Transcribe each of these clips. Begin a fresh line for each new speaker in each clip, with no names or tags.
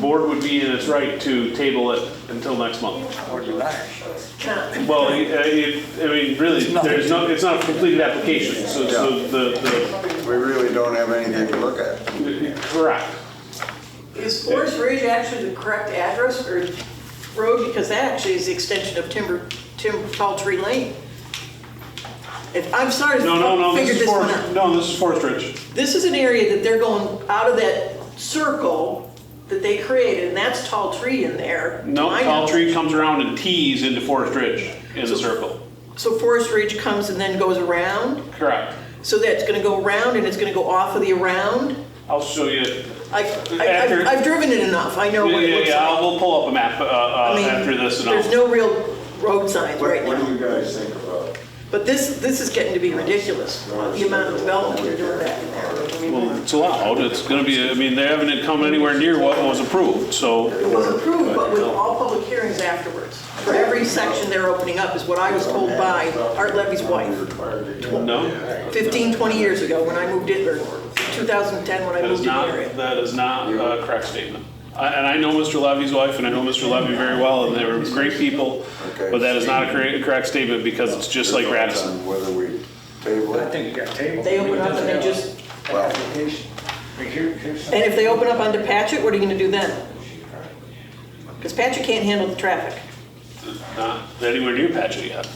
Board would be in its right to table it until next month.
Or do I?
Well, I I- I mean, really,
nothing.
there's no, it's not a completed application, so so the,
We really don't have anything to look at.
the, correct.
Is Forest Ridge actually the correct address or road, because that actually is the extension of Timber, Timber Tall Tree Lane? If, I'm sorry
No, no,
to
no, this
figure
is
this one
Forest,
out.
no, this is Forest Ridge.
This is an area that they're going out of that circle that they created, and that's Tall Tree in there. to
No,
my
Tall
knowledge.
Tree comes around and tees into Forest Ridge in the circle.
So Forest Ridge comes and then goes around,
Correct.
so that's gonna go around and it's gonna go off of the around?
I'll show you.
I, I-
After-
I've, I've driven it enough, I know
Yeah,
what it
yeah,
looks
yeah,
like.
I'll- we'll pull up a map uh,
I
uh,
mean,
after this and
There's
I'll.
no real road signs right
What, what do
now.
you guys think about?
But this, this is getting to be ridiculous, the amount of development we're doing back in there. I mean,
Well, It's allowed, it's gonna be, I mean, they haven't come anywhere near what was approved, so.
It was approved, but with all public hearings afterwards. For every section they're opening up is what I was told by Art Levy's wife,
No,
15, 20 years ago when I moved in, or 2010 when I
that
moved
is
in the
not,
area.
that is not a correct statement. I- And I know Mr. Levy's wife, and I know Mr. Levy very well, and they were great people, but that is not a correct, correct statement because it's just like Radisson.
On Whether we table
I
it.
think you got tabled.
They open up and they just,
Well,
Application. Like, here- here's some-
and if they open up onto Patchett, what are you going to do then? Because Patchett can't handle the traffic.
Not anywhere near Patchett yet.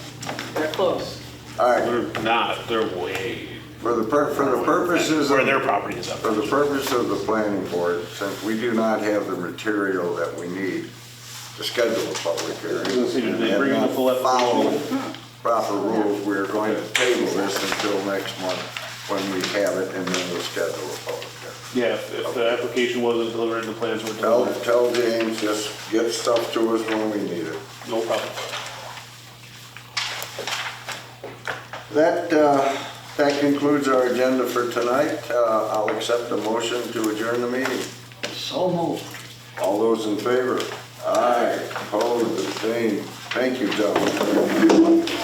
They're close.
all right,
They're not, they're way,
for the, pur- for the purposes
where their
of,
property is up.
for the purpose of the planning board, since we do not have the material that we need to schedule a public hearing.
Did they bring the full
and
up-
Follow proper rules, we're going to table this until next month when we have it and then we'll schedule a public hearing.
Yeah, if if the application wasn't delivered and the plans were
Tell,
delivered,
tell James, just get stuff to us when we need it.
no problem.
That, uh, that concludes our agenda for tonight. Uh, I'll accept a motion to adjourn the meeting.
So moved.
All those in favor? Aye, opposed, abstained. Thank you, gentlemen.